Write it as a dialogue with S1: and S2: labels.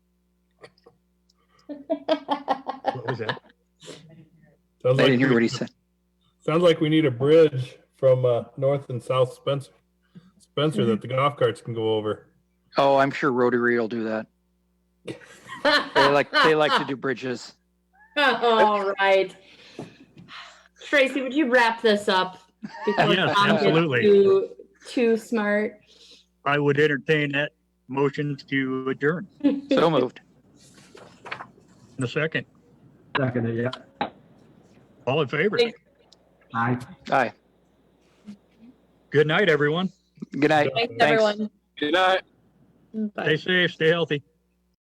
S1: What was that?
S2: Sounds
S3: I
S2: like
S3: didn't hear
S2: we-
S3: what he said.
S2: Sounds like we need a bridge from uh, North and South Spencer, Spencer that the golf carts can go over.
S3: Oh, I'm sure Rotary will do that. They like they
S4: Ah.
S3: like to do bridges.
S4: All right. Tracy, would you wrap this up? before
S1: Yes,
S4: Tom gets
S1: absolutely.
S4: Too, too smart.
S5: I would entertain that motion to adjourn
S3: So moved.
S5: in a second.
S6: Second, yeah.
S5: All in favor?
S4: Thank-
S6: Aye.
S3: Aye.
S5: Good night, everyone.
S3: Good night.
S4: Thanks,
S3: Thanks.
S4: everyone.
S7: Good night.
S4: Bye.
S5: Stay safe, stay healthy.